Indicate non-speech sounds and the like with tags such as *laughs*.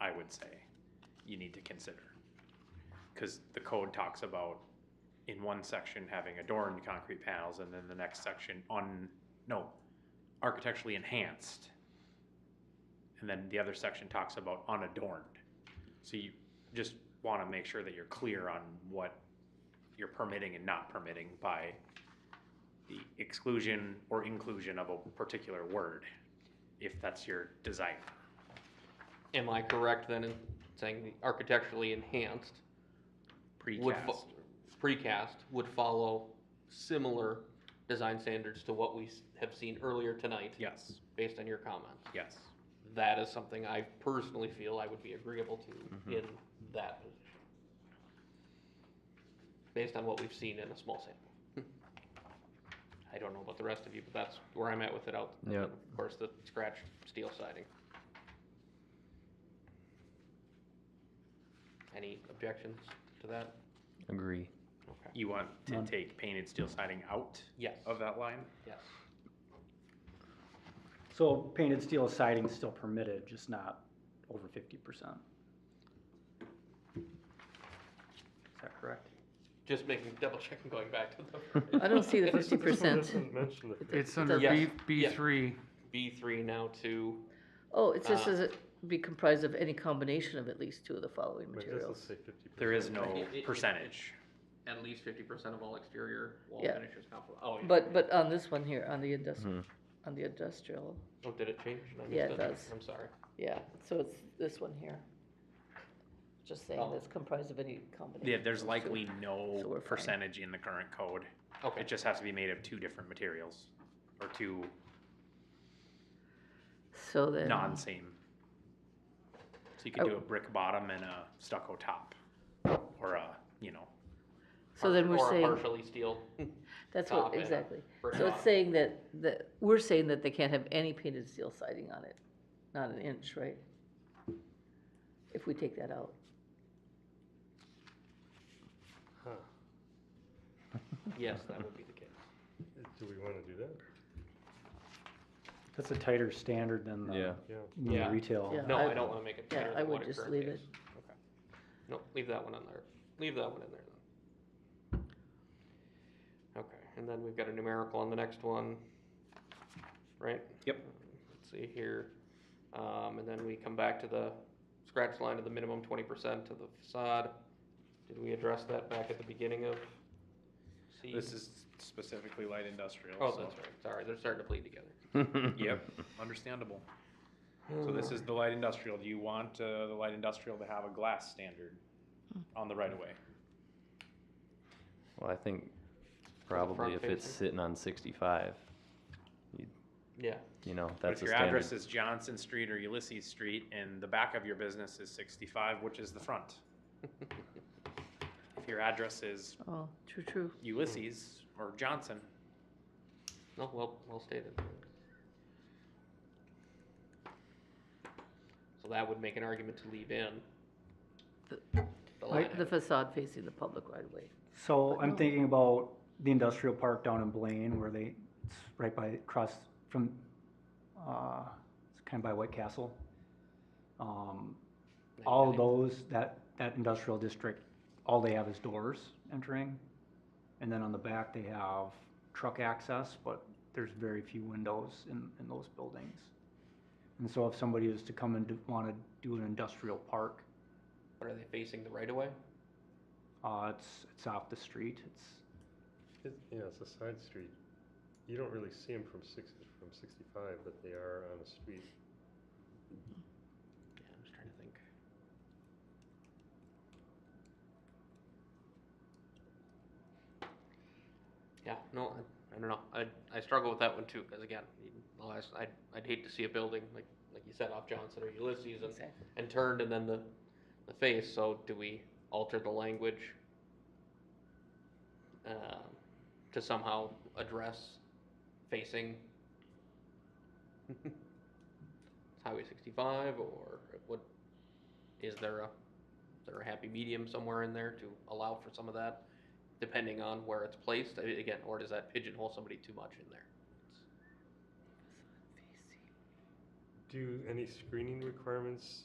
I would say you need to consider. Cause the code talks about in one section having adorned concrete panels and then the next section on, no, architecturally enhanced. And then the other section talks about unadorned. So you just wanna make sure that you're clear on what you're permitting and not permitting by the exclusion or inclusion of a particular word, if that's your desire. Am I correct then in saying the architecturally enhanced would Precast. fo- precast would follow similar design standards to what we s- have seen earlier tonight? Yes, Based on your comments, yes. that is something I personally feel I would be agreeable to in that position. Based on what we've seen in a small sample. I don't know about the rest of you, but that's where I'm at with it out. Yep. Of course, the scratch steel siding. Any objections to that? Agree. Okay. You want to None. take painted steel siding out Yes, of that line? yes. So painted steel siding is still permitted, just not over fifty percent. Is that correct? Just making, double checking, going back to the. *laughs* I don't see the *laughs* fifty percent. It's under B, Yes, B yeah. *laughs* three. B three now to, Oh, it just Ah. says it be comprised of any combination of at least two of the following materials. There is no It- it- it- percentage. at least fifty percent of all exterior wall Yeah. finishes now for, oh, yeah. But, but on this one here, on the industrial, on the industrial, Oh, did it change? I Yeah, missed it does. I'm sorry. yeah, so it's this one here. Just saying Oh. that's comprised of any combination. Yeah, there's of two. likely So we're no fine. percentage in the current code. Okay, It just has to be made of two different materials or two So then, non-same. So you can do a brick bottom and a stucco top or a, you know, so then we're or a saying, partially steel. *laughs* that's top what, and a exactly. brick So bottom. it's saying that, that, we're saying that they can't have any painted steel siding on it, not an inch, right? If we take that out. Yes, that would be the case. Do we wanna do that? That's a tighter standard than Yeah. the, Yeah. than the Yeah. retail. Yeah. No, I- I don't wanna make it yeah, better I than would what it just currently leave is. Okay. No, leave that one in there. Leave that one in there then. Okay, and then we've got a numerical on the next one, right? Yep. Let's see here. Um, and then we come back to the scratch line of the minimum twenty percent to the facade. Did we address that back at the beginning of C? this is specifically light industrial. Oh, so- that's right. Sorry, they're starting to bleed together. Yep, understandable. So this Hmm. is the light industrial. Do you want uh, the light industrial to have a glass standard on the right of way? Well, I think probably if it's front-facing? sitting on sixty-five, Yeah. you know, But that's if a your standard. address is Johnson Street or Ulysses Street and the back of your business is 65, which is the front? if your address is Oh, true, true. Ulysses or Johnson, No, well, well stated. So that would make an argument to leave in. The- The Right. line The item. facade facing the public right away. So But no. I'm thinking about the industrial park down in Blaine where they, it's right by, across from, uh, it's kind of by White Castle. Um, all of those, that, that industrial district, all they have is doors entering. And then on the back, they have truck access, but there's very few windows in, in those buildings. And so if somebody is to come and do- wanna do an industrial park, What are they facing, the right of way? uh, it's, it's off the street, it's, It, yeah, it's a side street. You don't really see them from six, from sixty-five, but they are on a street. Yeah, I'm just trying to think. Yeah, no, I, I don't know, I, I struggle with that one too, cause again, you- the last, I'd, I'd hate to see a building, like, like you said, off Johnson or Ulysses and and turned and then the, the face, so do we alter the language? Um, to somehow address facing? *laughs* Highway sixty-five, or what, is there a, is there a happy medium somewhere in there to allow for some of that? Depending on where it's placed, I- again, or does that pigeonhole somebody too much in there? do any screening requirements